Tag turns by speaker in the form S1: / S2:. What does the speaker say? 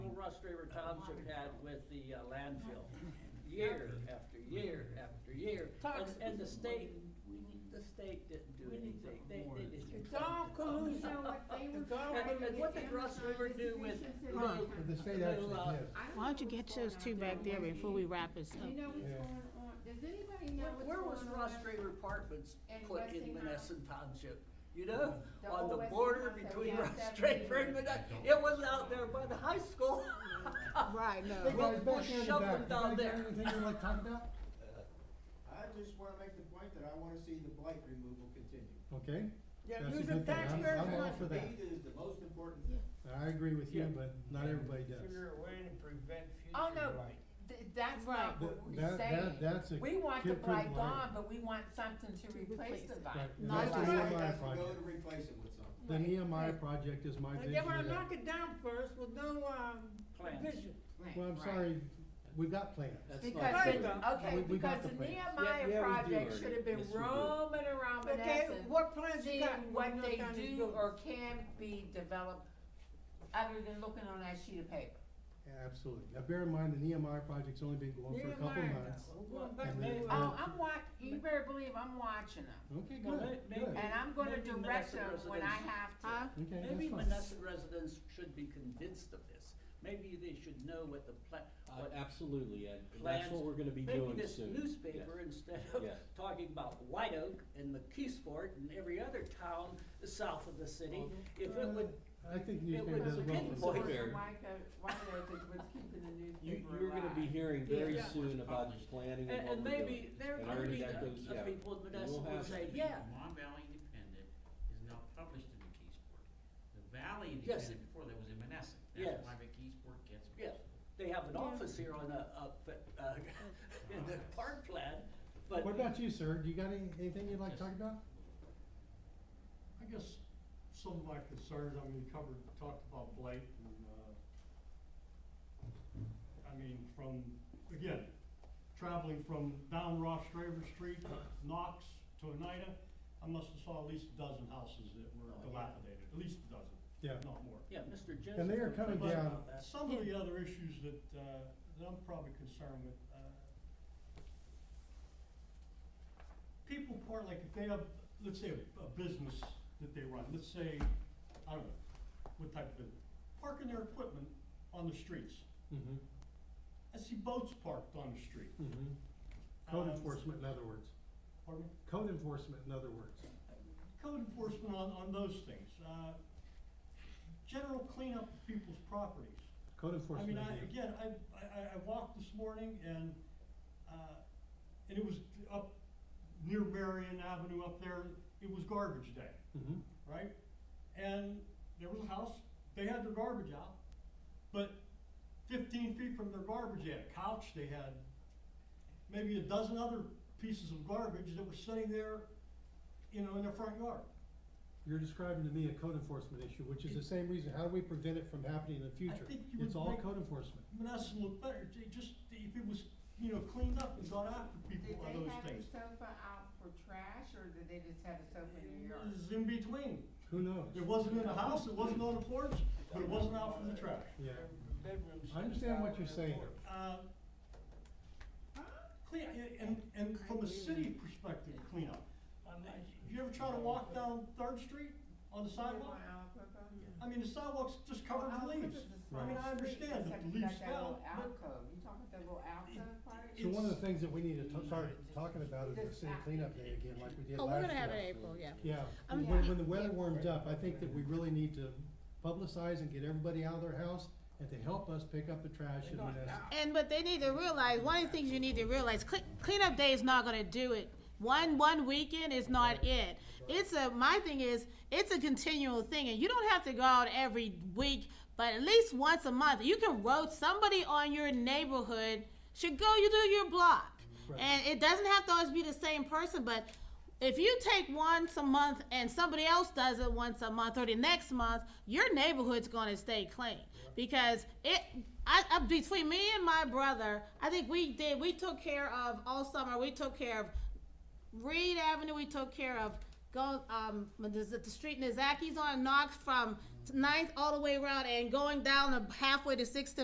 S1: South River Township had with the uh, landfill, year after year after year. And,
S2: Toxic.
S1: and the state, the state didn't do anything, they, they didn't.
S2: It's all collusion. It's all
S1: And, and what did Russ River do with little,
S3: But the state
S1: little,
S3: actually
S1: uh,
S3: did.
S4: Why don't you get those two back there before we wrap this
S2: Do you
S4: up?
S2: know what's
S3: Yeah.
S2: going on? Does anybody know
S1: where-
S2: what's going
S1: where
S2: on?
S1: was Russ River Apartments
S2: And
S1: put in
S2: Westinghouse.
S1: Menneson Township? You know,
S2: The
S1: on the
S2: old
S1: border
S2: Westinghouse that we
S1: between
S2: have
S1: Russ
S2: seven
S1: River and
S2: years.
S1: Menneson, it was out there by the high school.
S4: Right, no.
S1: They
S3: Well,
S1: got
S3: it's
S1: more
S3: back there in the
S1: shoveling
S3: back.
S1: down
S3: Anybody got
S1: there.
S3: Anything you wanna talk about?
S5: I just wanna make the point that I wanna see the blight removal continue.
S3: Okay,
S2: Yeah,
S3: That's a
S2: losing
S3: good thing. I'm-
S2: taxpayers'
S3: I'm all
S2: money.
S3: for that.
S5: To me, that is the most important thing.
S3: I agree with
S1: Yeah.
S3: you, but not everybody does.
S6: Figure a way to prevent future
S2: Oh,
S6: blight.
S2: no, th- that's
S4: Right.
S2: not what
S3: That-
S2: we're
S3: that-
S2: saying.
S3: that- that's a
S2: We want the
S3: kid-proof
S2: blight
S3: blight.
S2: gone, but we want something to replace
S4: replace
S2: the
S4: it.
S2: blight.
S3: Right, and
S2: Not
S3: that's
S5: Blight
S3: the
S2: blight.
S3: Nehemiah
S5: has to go
S3: project.
S5: to replace it with something.
S3: The Nehemiah project is my
S2: But
S3: vision
S2: they wanna
S3: of that.
S2: knock it down first with no, um,
S1: Plans.
S2: vision.
S3: Well, I'm sorry, we've got plans.
S1: That's not
S2: Because,
S1: fair.
S2: the-
S3: We-
S2: okay,
S3: we
S2: because
S3: got the
S2: the
S3: plans.
S1: Yeah,
S2: Nehemiah
S1: yeah, we
S2: project
S1: do.
S2: should have been
S1: Yes, we do.
S2: roaming around
S7: Okay,
S2: Menneson,
S7: what plans you
S2: seeing
S7: got? when
S2: what
S7: you
S2: they
S7: knock down these
S2: do
S7: buildings?
S2: or can be developed, other than looking on that sheet of paper.
S3: Absolutely. Now bear in mind, the Nehemiah project's only been going for a couple
S7: Nehemiah,
S3: months.
S7: now, we're going back
S3: And then-
S7: there.
S2: Oh, I'm wa- you better believe I'm watching them,
S3: Okay,
S1: Well,
S3: good,
S1: may-
S3: good.
S1: maybe-
S2: and I'm gonna
S1: Maybe Menneson
S2: direct them when I
S1: residents-
S2: have to.
S4: Huh?
S3: Okay,
S1: Maybe
S3: that's fine.
S1: Menneson residents should be convinced of this. Maybe they should know what the pla-
S8: Uh,
S1: what
S8: absolutely, Ed, that's
S1: Plans.
S8: what we're gonna be
S1: maybe
S8: doing
S1: this
S8: soon.
S1: newspaper, instead of
S8: Yes.
S1: talking about White Oak and McKeesport and every other town south of the city, if it would,
S3: I think
S1: it
S3: newspaper
S1: would
S3: does well
S1: begin
S3: for
S1: Boy,
S2: Why
S1: with-
S3: us.
S8: fair.
S2: what's keeping the
S8: You,
S2: newspaper
S8: you're gonna be
S2: alive.
S8: hearing very
S1: Yeah.
S8: uh, soon about the planning
S1: and,
S8: and what
S1: and
S8: we're doing.
S1: maybe there
S8: And
S1: could
S8: already
S1: be
S8: that
S1: the
S8: goes
S1: the
S8: out.
S1: people in
S8: And
S1: Menneson
S8: we'll
S1: would
S8: have-
S1: say,
S9: The
S1: yeah,
S9: Mon Valley Independent is now published in the Keysport. The Valley
S1: Yes.
S9: Independent before that was in Menneson.
S1: Yes.
S9: That's why the Keysport gets.
S1: Yes. they have an office here on a, up, uh, in the park plan, but.
S3: What about you, sir? Do you got any, anything you'd like to talk about?
S10: I guess some of my concerns, I mean, we covered, talked about blight and, uh, I mean, from, again, traveling from down Ross Straver Street, Knox to Oneida, I must have saw at least a dozen houses that were
S1: Oh, yeah.
S10: dilapidated, at least a dozen,
S3: Yeah.
S10: if not more.
S1: Yeah, Mr. Joseph.
S3: And they are
S1: would
S3: coming
S1: like to
S3: down-
S1: know that.
S10: Some of the other issues that, uh, that I'm probably concerned with, uh, people part, like if they have, let's say a, a business that they run, let's say, I don't know, what type of business, parking their equipment on the streets.
S3: Mm-hmm,
S10: I see boats parked on the street.
S3: mm-hmm. Code
S10: Um,
S3: enforcement, in other words.
S10: Pardon me?
S3: Code enforcement, in other words.
S10: Code enforcement on, on those things, uh, general cleanup of people's properties.
S3: Code
S10: I
S3: enforcement.
S10: mean, I,
S3: again.
S10: again, I, I, I- I walked this morning and, uh, and it was up near Marion Avenue up there, it was garbage day,
S3: Mhm.
S10: right? And there was a house, they had their garbage out, but fifteen feet from their garbage, they had a couch, they had maybe a dozen other pieces of garbage that were sitting there, you know, in their front yard.
S3: You're describing to me a code enforcement issue, which is the same reason, how do we prevent it from happening in the future?
S10: think you
S3: It's
S10: would
S3: all
S10: make-
S3: code enforcement.
S10: Manassas looked better, J- just if it was, you know, cleaned up and gone after
S2: Did
S10: people on
S2: they
S10: those
S2: have the
S10: things.
S2: sofa out for trash, or did they just have a sofa in
S10: It
S2: their yard?
S10: was in between.
S3: Who knows?
S10: It wasn't in the house, it wasn't on the porch, but it wasn't out for the trash.
S3: Yeah,
S6: Bedrooms
S3: I understand what you're
S6: out
S3: saying.
S6: there.
S10: Uh, Clean, and, and from a city perspective, cleanup. You ever try to walk down Third Street on the sidewalk? I mean, the sidewalk's just covered with leaves. I mean, I understand that the leaves fell, but
S2: Alcove, you talking about that little alcove part?
S3: So one of the things that we need to ta- start talking about is the
S2: This
S3: city
S2: act-
S3: cleanup day again, like we did
S4: Oh, we're
S3: last
S4: gonna have it
S3: year.
S4: April, yeah.
S3: Yeah,
S4: Um,
S3: when,
S4: yeah.
S3: when the weather warms up, I think that we really need to publicize and get everybody out of their house and to help us pick up the trash in Menneson.
S4: And, but they need to realize, one of the things you need to realize, cle- cleanup day is not gonna do it. One, one weekend is not it. It's a, my thing is, it's a continual thing, and you don't have to go out every week, but at least once a month, you can road, somebody on your neighborhood should go, you do your block.
S3: Right.
S4: And it doesn't have to always be the same person, but if you take once a month and somebody else does it once a month or the next month, your neighborhood's gonna stay clean. Because it, I, I, between me and my brother, I think we did, we took care of all summer, we took care of Reed Avenue, we took care of, go, um, what is it, the street Nizaki's on, Knox from Ninth all the way around and going down the halfway to Sixth